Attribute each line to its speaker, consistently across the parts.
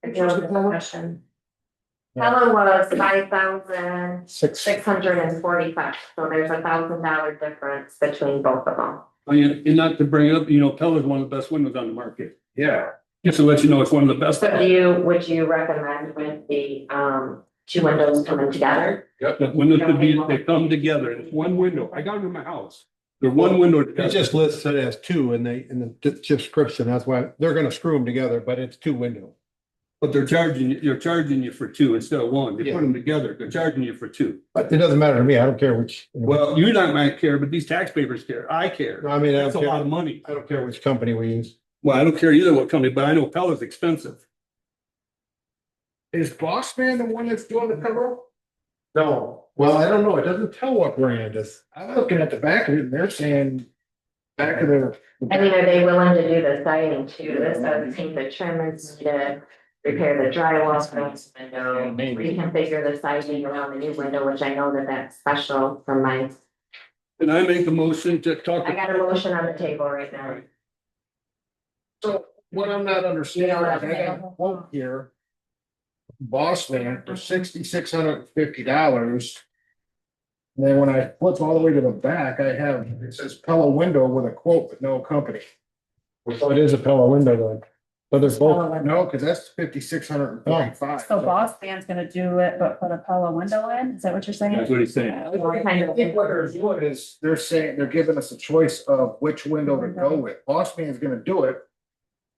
Speaker 1: Where's the total?
Speaker 2: question. Helen was five thousand
Speaker 1: Six.
Speaker 2: six hundred and forty-five, so there's a thousand dollar difference between both of them.
Speaker 3: I mean, and not to bring it up, you know, Pella is one of the best windows on the market.
Speaker 1: Yeah.
Speaker 3: Just to let you know, it's one of the best.
Speaker 2: So do you, would you recommend with the um two windows coming together?
Speaker 3: The windows to be, they come together. It's one window. I got them in my house. They're one window.
Speaker 4: It
Speaker 3: together.
Speaker 4: just lists it as two in the, in the de- description, that's why they're gonna screw them together, but it's two window.
Speaker 3: But they're charging, you. you're charging you for two instead of one. They
Speaker 4: Yeah.
Speaker 3: put them together. They're charging you for two.
Speaker 4: But it doesn't matter to me, I don't care which.
Speaker 3: Well, you're not my care, but these taxpayers care. I care.
Speaker 4: I mean, I
Speaker 3: That's a
Speaker 4: don't
Speaker 3: lot of
Speaker 4: care,
Speaker 3: money.
Speaker 4: I don't care which company we use.
Speaker 3: Well, I don't care either what company, but I know Pella's expensive.
Speaker 1: Is Boss Man the one that's doing the cover?
Speaker 4: No, well, I don't know, it doesn't tell what brand is.
Speaker 1: I'm looking at the back of it and they're saying back of the.
Speaker 2: I mean, are they willing to do the siding too? This doesn't think the trim is needed, repair the drywall, fix the window.
Speaker 1: Maybe.
Speaker 2: Reconfigure the siding around the new window, which I know that that's special from my,
Speaker 3: And I make a motion to talk.
Speaker 2: I
Speaker 3: to-
Speaker 2: got a motion on the table right now.
Speaker 1: So what I'm not understanding, is I got a quote here. Boss Man for sixty-six hundred and fifty dollars. And Then when I flip all the way to the back, I have, it says Pella window with a quote with no company.
Speaker 4: So Oh, it is a Pella window though, but they're both,
Speaker 1: No, because that's fifty-six hundred and forty-five.
Speaker 5: So boss man's gonna do it, but put a Pella window in, is that what you're
Speaker 3: That's
Speaker 5: saying?
Speaker 3: what he's saying.
Speaker 2: Kind
Speaker 1: I think what they're
Speaker 2: of-
Speaker 1: doing is, they're saying, they're giving us a choice of which window to go with, boss man's gonna do it.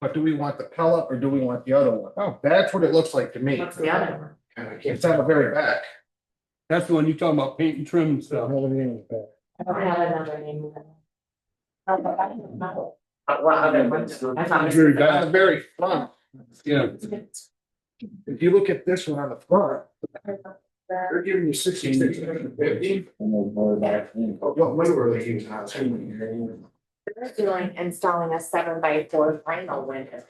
Speaker 1: But do we want the pellet or do we want the other one? Oh, that's what it looks like to me.
Speaker 2: What's the other one?
Speaker 1: It's on the very back.
Speaker 3: That's the one you talking about paint and trim and
Speaker 4: I
Speaker 3: stuff.
Speaker 1: Uh-huh.
Speaker 4: don't have anything with that.
Speaker 2: I don't have another name. Uh, What other one? I found
Speaker 3: Very
Speaker 1: It's
Speaker 3: bad.
Speaker 2: this-
Speaker 1: on the very front,
Speaker 3: Yeah.
Speaker 1: if you look at this one on the front. They're giving you sixty-six hundred fifty. What window are they using?
Speaker 2: They're Doing installing a seven by four vinyl window.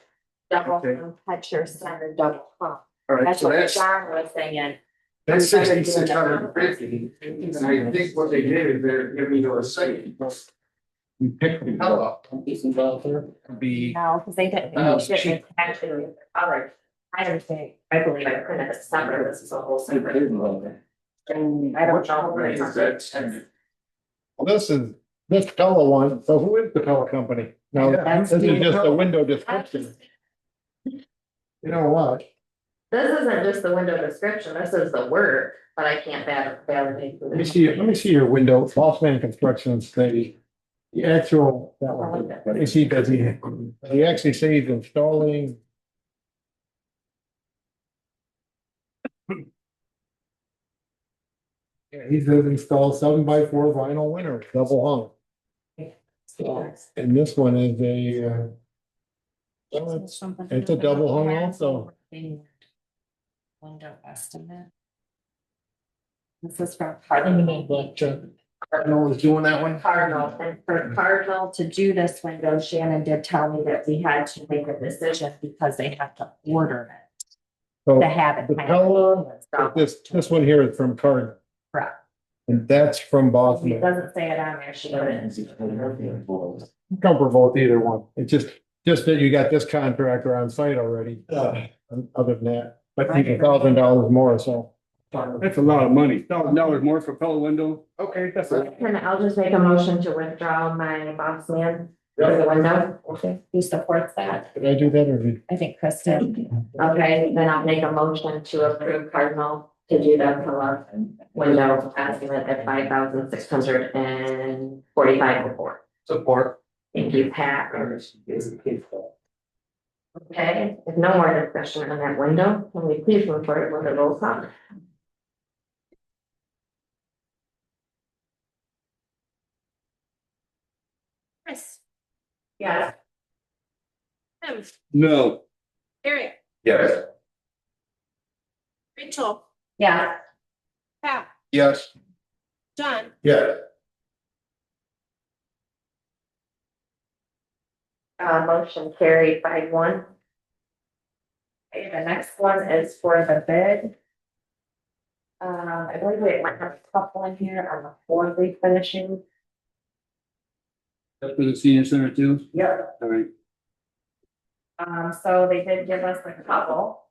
Speaker 1: Okay.
Speaker 2: Double catch your center double pump.
Speaker 1: Alright,
Speaker 2: That's
Speaker 1: so
Speaker 2: what
Speaker 1: that's,
Speaker 2: John was saying.
Speaker 1: that's sixty-six hundred fifty, and I think what they did is they're giving you a second. You pick the pellet up. Be.
Speaker 2: No, because they didn't.
Speaker 1: Oh,
Speaker 2: they didn't
Speaker 1: she-
Speaker 2: attach it with the color. I understand. I believe I printed a separate, this is a whole separate. And I don't know. where it's-
Speaker 4: Well, This is, this Pella one, so who is the Pella company? No,
Speaker 1: Yeah.
Speaker 4: this is just a window description,
Speaker 2: This
Speaker 4: you know what?
Speaker 2: isn't just the window description, this is the word, but I can't val- validate.
Speaker 4: Let me see, let me see your window, Boss Man Construction's the, the actual, that one. Let me see, does he, he actually say he's installing? Yeah, he says install seven by four vinyl winner, double
Speaker 2: Yes.
Speaker 4: hung, and this one is a, uh. well, it's-
Speaker 5: Something to
Speaker 4: It's
Speaker 5: do
Speaker 4: a
Speaker 5: with
Speaker 4: double hung
Speaker 5: Pella.
Speaker 4: also,
Speaker 5: Window estimate. This is from
Speaker 1: Cardinal is doing that one?
Speaker 2: Cardinal, and for Cardinal to do this window, Shannon did tell me that we had to make a decision because they have to order it
Speaker 4: so
Speaker 2: to have it.
Speaker 4: Oh, the Pella,
Speaker 2: So-
Speaker 4: this, this one here is from Cardinal.
Speaker 2: Correct.
Speaker 4: And that's from Boss
Speaker 2: It
Speaker 4: Man.
Speaker 2: doesn't say it on there, she didn't.
Speaker 4: comfortable with either one. It's just, just that you got this contractor on site already.
Speaker 3: Yeah.
Speaker 4: And Other than that, but think a thousand dollars more, so.
Speaker 3: That's a lot of money. Thousand dollars more for Pella window.
Speaker 1: Okay, that's it.
Speaker 2: Can, I'll just make a motion to withdraw my boss man for the window. Okay. Who supports that?
Speaker 4: Did I do that or did?
Speaker 2: I think Chris did. Okay, then I'll make a motion to approve Cardinal to do the color window estimate at five thousand six hundred and forty-five before.
Speaker 1: Support.
Speaker 2: Thank you, Pat. Okay, if no more discussion on that window, can we please move forward with the roll call?
Speaker 6: Chris,
Speaker 2: Yes.
Speaker 6: Tim,
Speaker 3: No.
Speaker 6: Eric,
Speaker 1: Yes.
Speaker 6: Rachel,
Speaker 2: Yeah.
Speaker 6: Pat,
Speaker 1: Yes.
Speaker 6: John,
Speaker 1: Yeah.
Speaker 2: Uh, motion carried by one. Okay, the next one is for the bid. Uh, I believe we might have a couple in here on the floor refinishing.
Speaker 3: That's for the senior center too.
Speaker 2: Yep.
Speaker 3: All right.
Speaker 2: Um, so they did give us a couple.